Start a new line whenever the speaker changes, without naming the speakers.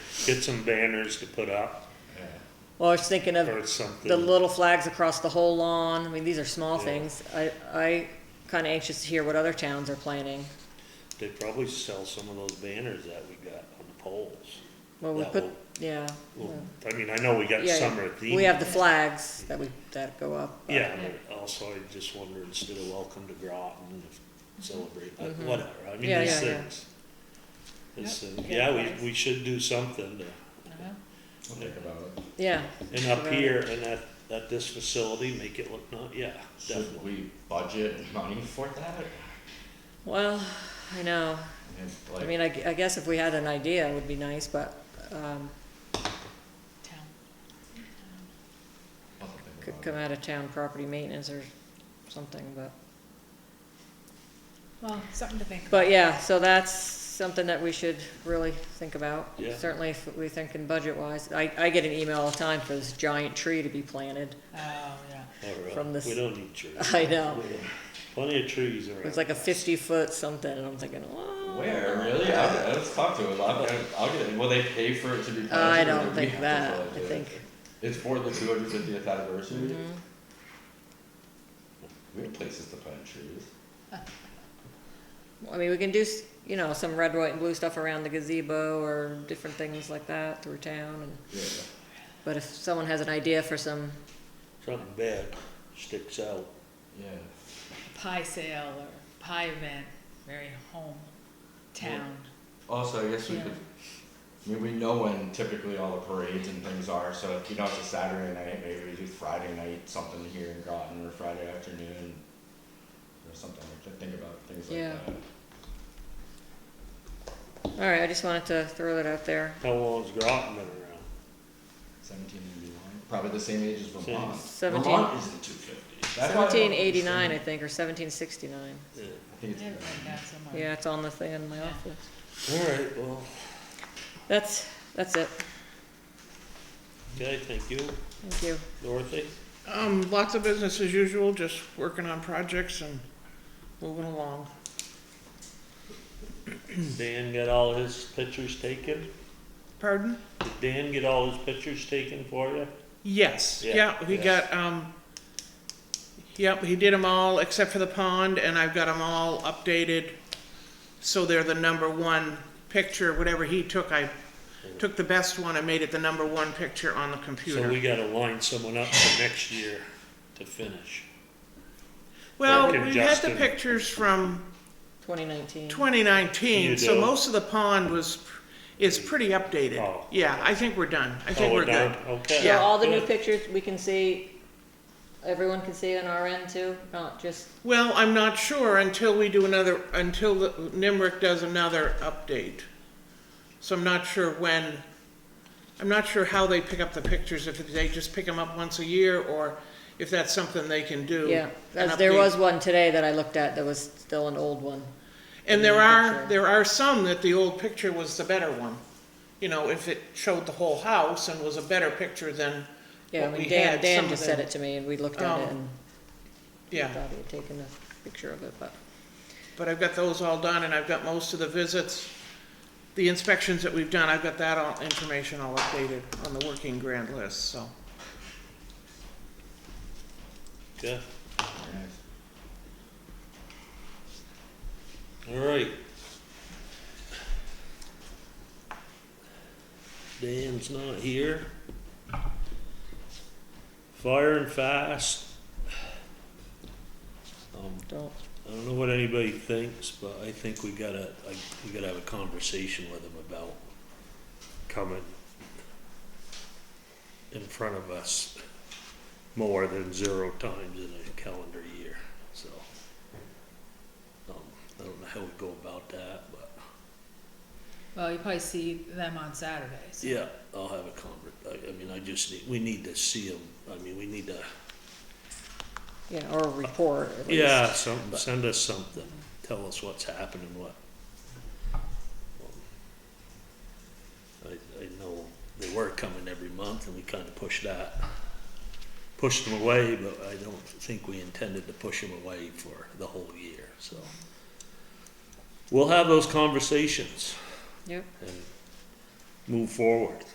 get some banners to put up
Well, I was thinking of
or something.
the little flags across the whole lawn. I mean, these are small
Yeah.
things. I, I kind of anxious to hear what other towns are planning.
They probably sell some of those banners that we got on the poles.
Well, we
That
put,
will-
yeah.
Well,
well,
I mean, I know we got
yeah, yeah.
summer theme.
We have the flags that we, that go up. but-
Yeah, but also I just wonder instead of welcome to Groton, if celebrate, uh,
Mhm.
whatever, I mean,
Yeah,
these
yeah, yeah.
things. These
Yep,
things,
yeah,
yeah,
nice.
we, we should do something to,
Uh-huh.
We'll think about it.
Yeah,
and up
Right.
here and at, at this facility, make it look, not, yeah, definitely.
Should we budget money for that?
well, I know.
It's
I
like-
mean, I, gu- I guess if we had an idea, it would be nice, but, um,
Town.
I'll think
could
about
come
it.
out of town property maintenance or something, but.
Well, something to think about.
But yeah, so that's something that we should really think about.
Yeah.
Certainly if we thinking budget wise. I, I get an email all the time for this giant tree to be planted.
Oh, yeah.
Or, uh,
From this-
We don't need trees.
I know.
We have Plenty of trees around.
It's like a fifty foot something and I'm thinking, wow.
Where, really? I, let's talk to him, I'll, I'll get it, will they pay for it to be planted?
I
or do
don't
we
think
have to
that. I
pledge it?
think, Mm-hmm.
It's for the two hundred fiftieth anniversary? We have places to plant trees.
I mean, we can do, s- you know, some red, white and blue stuff around the gazebo or different things like that through town and,
Yeah.
but if someone has an idea for some,
Something bad sticks out.
Yeah.
Pie sale or pie event, very home town.
Also, I guess we
Yeah.
could, I mean, we know when typically all the parades and things are, so if you know it's a Saturday night, maybe we do Friday night, something here in Groton, or Friday afternoon, or something, like that. think about things like
Yeah.
that.
alright, I just wanted to throw that out there.
How long's Groton been around?
Seventeen eighty-one, probably the same age as Vermont.
Seventeen-
Vermont isn't two fifty.
Seventeen eighty-nine, I think, or seventeen sixty-nine.
Yeah.
I think it's,
Everybody got somewhere.
Yeah, it's on the thing in my
Yeah.
office.
All right, well,
That's, that's it.
okay, thank you,
Thank you.
Dorothy.
Um, lots of business as usual, just working on projects and moving along.
Dan got all his pictures taken?
Pardon?
Did Dan get all his pictures taken for you?
Yes,
Yeah,
yeah, he
yeah.
got, um, yep, he did them all except for the pond and I've got them all updated. So they're the number one picture, whatever he took, I took the best one and made it the number one picture on the
So
computer.
we gotta line someone up for next year to finish.
Well,
Working
we had the
Justin.
pictures from
Twenty nineteen.
2019,
You
so
do.
most of the pond was, is pretty updated.
Oh.
Yeah, I think we're done. I think
Oh,
we're
done?
good.
Okay.
So all the new
good.
pictures we can see, everyone can see on our end too, not just,
Well, I'm not sure until we do another, until the- NIMRIC does another update. So I'm not sure when, I'm not sure how they pick up the pictures, if they just pick them up once a year, or if that's something they can do.
yeah.
an
As there
update.
was one today that I looked at that was still an old one.
And there
new
are,
picture.
there are some that the old picture was the better one. You know, if it showed the whole house and was a better picture than
Yeah, I
what we
mean, Dan,
had, some
Dan
of
just said
them.
it to me and we looked at it
Oh.
and
Yeah,
thought he had taken a picture of it, but,
but I've got those all done, and I've got most of the visits, the inspections that we've done, I've got that all, information all updated on the working grant list, so.
Okay. All right. Dan's not here. Fire and fast. Um,
don't,
I don't know what anybody thinks, but I think we gotta, I, we gotta have a conversation with them about coming in front of us more than zero times in a calendar year, so. Um, I don't know how we go about that, but,
Well, you probably see them on Saturdays.
yeah, I'll have a conver, I, I mean, I just need, we need to see them, I mean, we need to,
yeah, or a report at least.
yeah, something, send us something, tell us what's happening, what. I, I know they were coming every month and we kinda pushed that, pushed them away, but I don't think we intended to push them away for the whole year, so. We'll have those conversations
Yep,
and move forward.